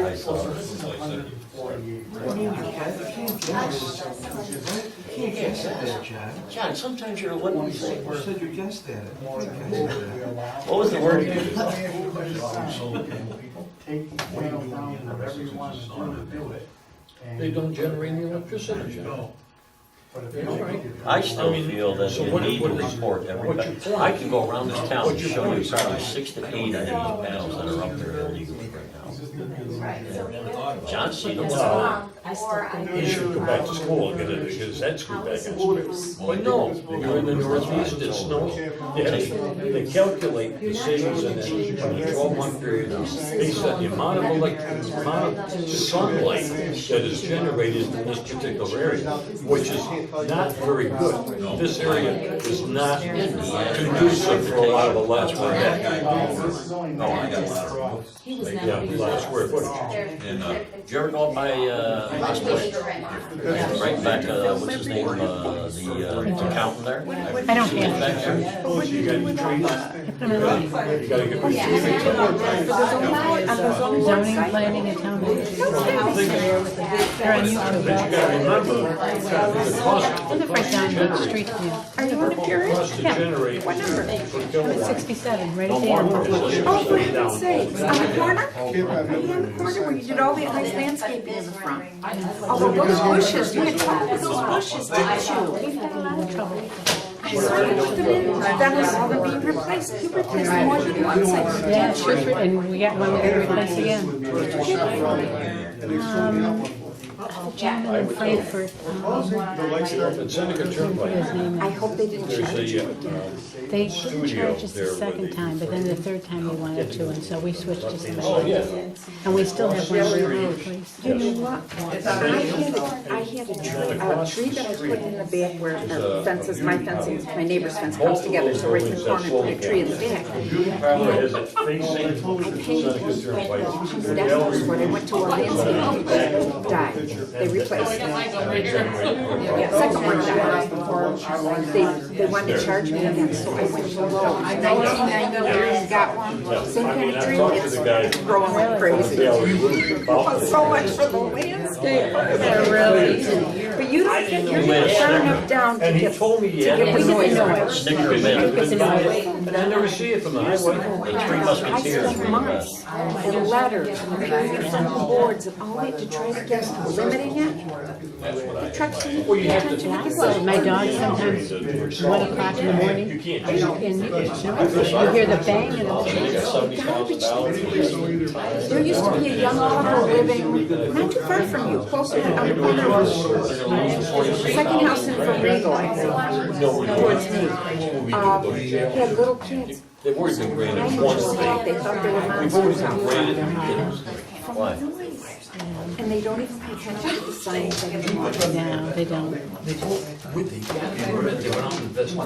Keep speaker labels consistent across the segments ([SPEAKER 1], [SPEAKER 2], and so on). [SPEAKER 1] I saw.
[SPEAKER 2] So this is a hundred and forty-eight.
[SPEAKER 3] I mean, you can't, you can't do this. You can't guess at that, John.
[SPEAKER 4] John, sometimes you're, what do you say?
[SPEAKER 3] You said you guessed at it.
[SPEAKER 2] More
[SPEAKER 3] You
[SPEAKER 2] than
[SPEAKER 3] can't
[SPEAKER 2] what
[SPEAKER 3] guess
[SPEAKER 2] would
[SPEAKER 3] at
[SPEAKER 2] be
[SPEAKER 3] it.
[SPEAKER 2] allowed.
[SPEAKER 4] What was the word you used?
[SPEAKER 2] Take the twelve thousand of everyone to do to do it. and-
[SPEAKER 5] They don't generate any electricity, John.
[SPEAKER 2] But if
[SPEAKER 5] They
[SPEAKER 2] you don't
[SPEAKER 5] don't.
[SPEAKER 2] get it-
[SPEAKER 4] I still feel that
[SPEAKER 5] So
[SPEAKER 4] you
[SPEAKER 5] what-
[SPEAKER 4] need to
[SPEAKER 5] what is-
[SPEAKER 4] report
[SPEAKER 5] what's your
[SPEAKER 4] everybody.
[SPEAKER 5] point?
[SPEAKER 4] I can go around this town and
[SPEAKER 5] What's your
[SPEAKER 4] show you
[SPEAKER 5] point?
[SPEAKER 4] probably six to eight of these panels that are up there illegally right now.
[SPEAKER 6] Right, so we have.
[SPEAKER 4] John seen them
[SPEAKER 6] Well,
[SPEAKER 4] all.
[SPEAKER 6] I still think
[SPEAKER 7] You should go back to school and get it, because that's go back in school.
[SPEAKER 6] Housing.
[SPEAKER 5] But no, you're in the northeast, it snows.
[SPEAKER 7] Yes, they calculate the savings in that, in a twelve-month period, based on the amount of electric, amount of sunlight that is generated in this particular area, which is not very good. This area is not conducive for a lot of a lot
[SPEAKER 4] Oh,
[SPEAKER 7] of that.
[SPEAKER 2] This is only
[SPEAKER 1] No, Oh, I got a
[SPEAKER 2] nine.
[SPEAKER 1] lot of rules.
[SPEAKER 6] He was
[SPEAKER 7] Yeah,
[SPEAKER 6] never.
[SPEAKER 7] a lot of square footage.
[SPEAKER 1] And, uh,
[SPEAKER 4] Did you ever go up by, uh, Westwood? right back, uh, what's his name, uh, the uh, accountant there?
[SPEAKER 8] I don't
[SPEAKER 4] He's
[SPEAKER 8] care.
[SPEAKER 4] back there.
[SPEAKER 7] So you gotta get trees. You gotta get
[SPEAKER 6] Yeah, and
[SPEAKER 7] trees.
[SPEAKER 6] then on the-
[SPEAKER 8] On the Zoning, planning, and town meeting. They're on YouTube.
[SPEAKER 7] But you gotta remember, the cost,
[SPEAKER 8] I
[SPEAKER 7] the
[SPEAKER 8] live right
[SPEAKER 7] cost to
[SPEAKER 8] down the street
[SPEAKER 7] generate,
[SPEAKER 8] from you. Are you on a
[SPEAKER 7] the cost to
[SPEAKER 8] Yeah.
[SPEAKER 7] generate
[SPEAKER 8] What number?
[SPEAKER 7] per kilowatt.
[SPEAKER 8] 67, right at
[SPEAKER 7] Don't
[SPEAKER 8] the
[SPEAKER 7] mark
[SPEAKER 8] end.
[SPEAKER 7] it.
[SPEAKER 9] Oh, for heaven's sakes, on the corner, on the corner where you did all that nice landscaping in the front.
[SPEAKER 6] Oh,
[SPEAKER 9] Although those bushes, you had trouble with those bushes, didn't you?
[SPEAKER 8] We've had a lot of trouble.
[SPEAKER 9] I saw you put them in, that was all they're being replaced, you replaced more than one side.
[SPEAKER 8] Yeah, it's just, and we got one that we replaced again. Jim in Frankfurt. um,
[SPEAKER 7] At Seneca
[SPEAKER 8] His
[SPEAKER 7] Turnpike,
[SPEAKER 8] name
[SPEAKER 9] I
[SPEAKER 8] is.
[SPEAKER 9] hope they didn't charge
[SPEAKER 7] there's
[SPEAKER 9] you
[SPEAKER 7] a,
[SPEAKER 9] again.
[SPEAKER 7] uh,
[SPEAKER 8] They didn't
[SPEAKER 7] studio
[SPEAKER 8] charge us
[SPEAKER 7] there
[SPEAKER 8] the
[SPEAKER 7] where
[SPEAKER 8] second
[SPEAKER 7] they-
[SPEAKER 8] time, but then the third time they wanted to, and so we switched to
[SPEAKER 7] uh, oh,
[SPEAKER 8] somebody.
[SPEAKER 7] yeah.
[SPEAKER 8] And we still have one of the place.
[SPEAKER 9] You know what? I had, a- I had a tree, a tree that I put in the back where the fences, my fencing, my neighbor's fence comes together, so right in the corner, put a tree in the back.
[SPEAKER 7] Beauty parlor has it facing Seneca Turnpike. Their
[SPEAKER 9] That's
[SPEAKER 7] gallery
[SPEAKER 9] where they went to a landscape, people died, they replaced it. Yeah, second one died. They, they wanted to charge me again, so I went to low. Nineteen ninety-three, got one, same kind of tree, it's growing like crazy. So much for the landscape. But you don't get, you're not far enough down to
[SPEAKER 7] And he
[SPEAKER 9] get, to
[SPEAKER 7] told me he had.
[SPEAKER 9] get the
[SPEAKER 7] it.
[SPEAKER 9] noise.
[SPEAKER 4] Snicker Man.
[SPEAKER 7] Because he was buying it, But I never see it from the highway.
[SPEAKER 4] The Three Musketeers.
[SPEAKER 9] spent months and letters and papers and boards and all that to try to get limiting it. The trucks didn't
[SPEAKER 7] Well, you
[SPEAKER 9] pay
[SPEAKER 7] have to-
[SPEAKER 9] attention to this.
[SPEAKER 8] Well, my dog sometimes, one o'clock in the morning,
[SPEAKER 7] You
[SPEAKER 8] and
[SPEAKER 7] can't
[SPEAKER 8] you
[SPEAKER 7] just.
[SPEAKER 8] can- you hear the bang and the
[SPEAKER 7] They got seventy thousand dollars.
[SPEAKER 9] There used to be a young couple living not too far from you, closer to on the corner of second house in Borrego, I think, towards me. Uh, Had little kids.
[SPEAKER 7] They've already been
[SPEAKER 9] I
[SPEAKER 7] graded
[SPEAKER 9] knew
[SPEAKER 7] once.
[SPEAKER 9] them all. They thought they were
[SPEAKER 7] We've already
[SPEAKER 9] monsters
[SPEAKER 7] been
[SPEAKER 9] out
[SPEAKER 7] graded
[SPEAKER 9] front.
[SPEAKER 7] because
[SPEAKER 4] Why?
[SPEAKER 9] And they don't even pay attention to the signs anymore.
[SPEAKER 8] No, they don't.
[SPEAKER 5] They went out and invested.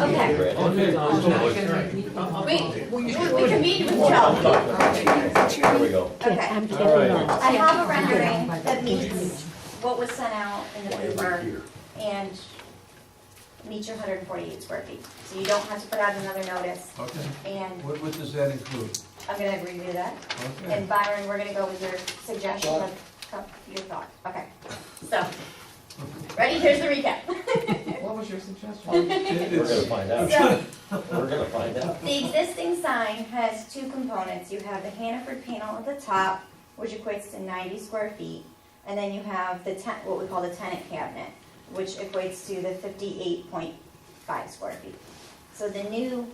[SPEAKER 6] Okay, wait, we can meet with Joe.
[SPEAKER 4] There we go.
[SPEAKER 8] Yeah, I'm getting lost.
[SPEAKER 6] I have a rendering that meets what was sent out in the paper and meets your hundred and forty-eight square feet. So you don't have to put out another notice.
[SPEAKER 3] Okay.
[SPEAKER 6] And
[SPEAKER 3] What, what does that include?
[SPEAKER 6] I'm gonna agree with that.
[SPEAKER 3] Okay.
[SPEAKER 6] And Byron, we're gonna go with your suggestion of, of your thought, okay? So, ready, here's the recap.
[SPEAKER 3] What was your suggestion?
[SPEAKER 4] We're gonna find out.
[SPEAKER 6] So,
[SPEAKER 4] We're gonna find out.
[SPEAKER 6] the existing sign has two components. You have the Hannaford panel at the top, which equates to ninety square feet. And then you have the ten, what we call the tenant cabinet, which equates to the fifty-eight point five square feet. So the new,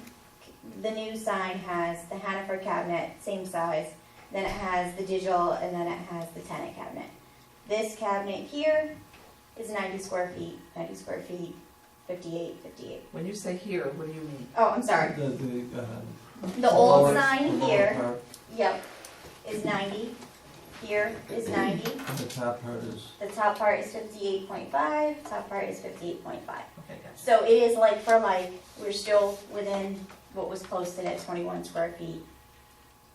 [SPEAKER 6] the new sign has the Hannaford cabinet, same size, then it has the digital, and then it has the tenant cabinet. This cabinet here is ninety square feet, ninety square feet, fifty-eight, fifty-eight.
[SPEAKER 10] When you say here, what do you mean?
[SPEAKER 6] Oh, I'm sorry,
[SPEAKER 3] The, the, uh,
[SPEAKER 6] the old
[SPEAKER 3] lower- the
[SPEAKER 6] sign
[SPEAKER 3] lower
[SPEAKER 6] here,
[SPEAKER 3] part
[SPEAKER 6] yep, is ninety, here is ninety,
[SPEAKER 3] and The top part is.
[SPEAKER 6] the top part is fifty-eight point five, top part is fifty-eight point five.
[SPEAKER 10] Okay, gotcha.
[SPEAKER 6] So it is like for like, we're still within what was posted at twenty-one square feet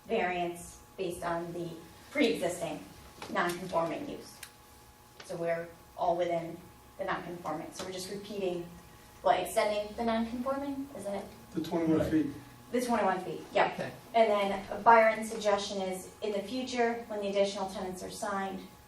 [SPEAKER 6] variance based on the pre-existing non-conforming use. So we're all within the non-conforming, so we're just repeating, what, extending the non-conforming, isn't it?
[SPEAKER 2] The twenty-one feet.
[SPEAKER 6] The twenty-one feet, yep.
[SPEAKER 1] Okay.
[SPEAKER 6] And then Byron's suggestion is, in the future, when the additional tenants are signed,